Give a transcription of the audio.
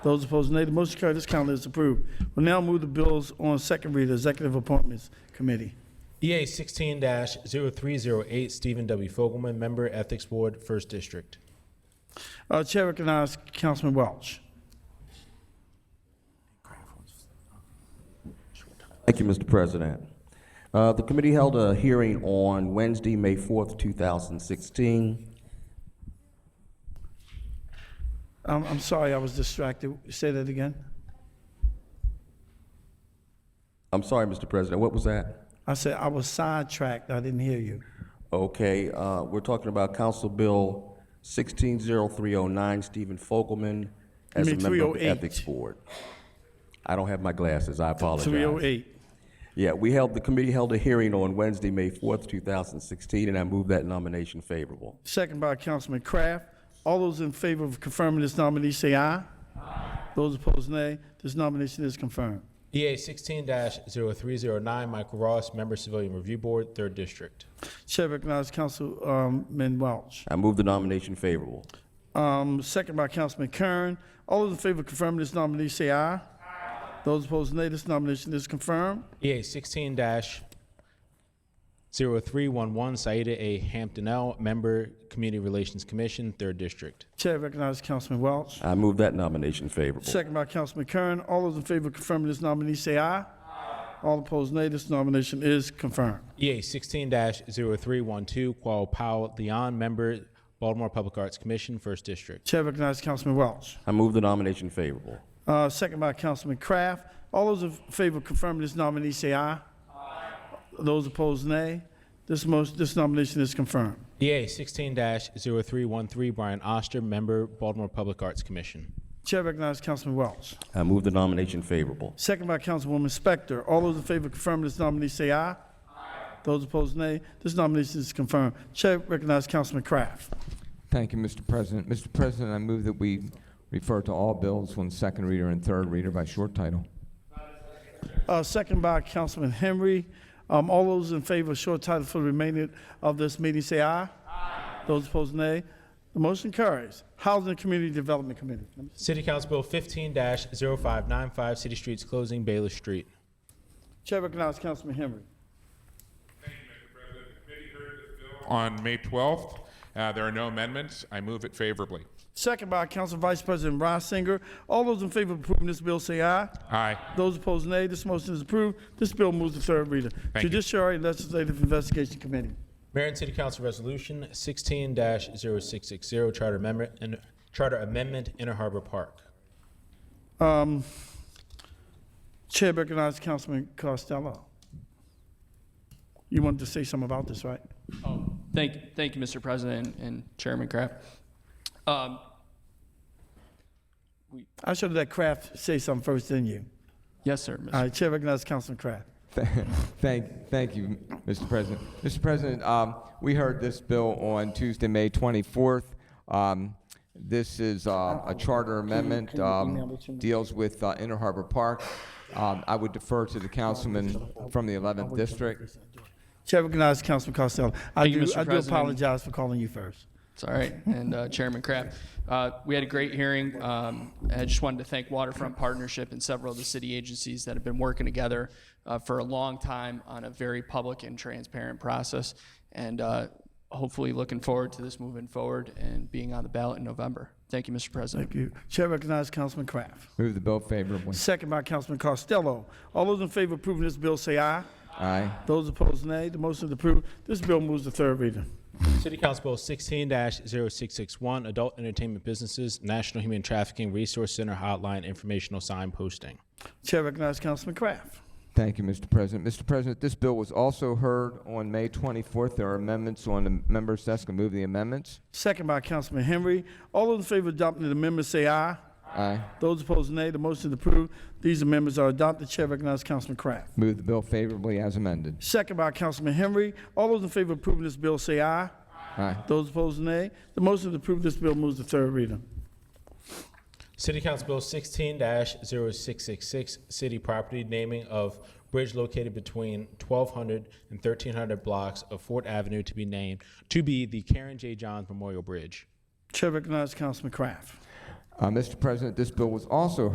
Those opposed, nay. The motion carried. This calendar is approved. We'll now move the bills on second reader, Executive Appointments Committee. EA 16-0308, Stephen W. Fogelman, Member, Ethics Board, 1st District. Uh, Chair recognizes Councilman Welch. Thank you, Mr. President. Uh, The committee held a hearing on Wednesday, May 4th, 2016. I'm, I'm sorry, I was distracted. Say that again. I'm sorry, Mr. President, what was that? I said I was sidetracked. I didn't hear you. Okay, uh, we're talking about Council Bill 160309, Stephen Fogelman as a mean member of the 308. Ethics Board. I don't have my glasses, I apologize. 308. Yeah, we held, the committee held a hearing on Wednesday, May 4th, 2016, and I move that nomination favorable. Second by Councilman Kraft. All those in favor of confirming this nominee, say aye. Those opposed, nay. This nomination is confirmed. EA 16-0309, Michael Ross, Member, Civilian Review Board, 3rd District. Chair recognizes Councilman Welch. I move the nomination favorable. Um, second by Councilman Kern. All those in favor of confirming this nominee, say aye. Those opposed, nay. This nomination is confirmed. EA 16-0311, Saida A. Hampton L., Member, Community Relations Commission, 3rd District. Chair recognizes Councilman Welch. I move that nomination favorable. Second by Councilman Kern. All those in favor of confirming this nominee, say aye. All opposed, nay. This nomination is confirmed. EA 16-0312, Qual Powell Leon, Member, Baltimore Public Arts Commission, 1st District. Chair recognizes Councilman Welch. I move the nomination favorable. Uh, Second by Councilman Kraft. All those in favor of confirming this nominee, say aye. Those opposed, nay. This motion, this nomination is confirmed. EA 16-0313, Brian Oster, Member, Baltimore Public Arts Commission. Chair recognizes Councilman Welch. I Uh, move the nomination favorable. Second by Councilwoman Spector. All those in favor of confirming this nominee, say aye. Those opposed, nay. This nomination is confirmed. Chair recognizes Councilman Kraft. Thank you, Mr. President. Mr. President, I move that we refer to all bills on second reader and third reader by short title. Uh, second by Councilman Henry. Um, all those in favor of short title for the remainder of this meeting, say aye. Those opposed, nay. The motion carries. Housing and Community Development Committee. City Council Bill 15-0595, City Streets Closing, Bayless Street. Chair recognizes Councilman Henry. Thank you, Mr. President. The committee heard this bill On May 12th, Uh, there are no amendments. I move it favorably. Second by Council Vice President Reisinger. All those in favor of approving this bill, say aye. Aye. Those opposed, nay. This motion is approved. This bill moves to third reader. Thank you. Judiciary and Legislative Investigation Committee. Mayor and City Council Resolution 16-0660, Charter Amendment, and- Charter Amendment, Inner Harbor Park. Um, Chair recognizes Councilman Costello. You wanted to say something about this, right? Oh, Thank, thank you, Mr. President and Chairman Kraft. Um, I should have let Kraft say something first, didn't you? Yes, sir. Mr. All right, Chair recognizes Councilman Kraft. Thank, thank you, Mr. President. Mr. President, um, we heard this bill on Tuesday, May 24th. Um, this is uh, a charter amendment, um, deals with uh, Inner Harbor Park. Um, I would defer to the councilman from the 11th district. Chair recognizes Councilman Costello. I Thank you, do, Mr. I do President. apologize for calling you first. It's all right. And uh, Chairman Kraft, uh, we had a great hearing. Um, I just wanted to thank Waterfront Partnership and several of the city agencies that have been working together uh, for a long time on a very public and transparent process. And uh, hopefully looking forward to this moving forward and being on the ballot in November. Thank you, Mr. President. Thank you. Chair recognizes Councilman Kraft. Move the bill favorably. Second by Councilman Costello. All those in favor of approving this bill say aye. Aye. Those opposed, nay. The motion is approved. This bill moves to third reader. City Council Bill 16-0661, Adult Entertainment Businesses, National Human Trafficking Resource Center Hotline Informational Sign Posting. Chair recognizes Councilman Kraft. Thank you, Mr. President. Mr. President, this bill was also heard on May 24th. There are amendments on the members' desk. I move the amendments. Second by Councilman Henry. All those in favor of adopting the amendment say aye. Aye. Those opposed, nay. The motion is approved. These amendments are adopted. Chair recognizes Councilman Kraft. Move the bill favorably as amended. Second by Councilman Henry. All those in favor of approving this bill say aye. Aye. Those opposed, nay. The motion to approve this bill moves to third reader. City Council Bill 16-0666, City Property Naming of Bridge located between 1200 and 1300 blocks of Fort Avenue to be named, to be the Karen J. Johns Memorial Bridge. Chair recognizes Councilman Kraft. Uh, Mr. President, this bill was also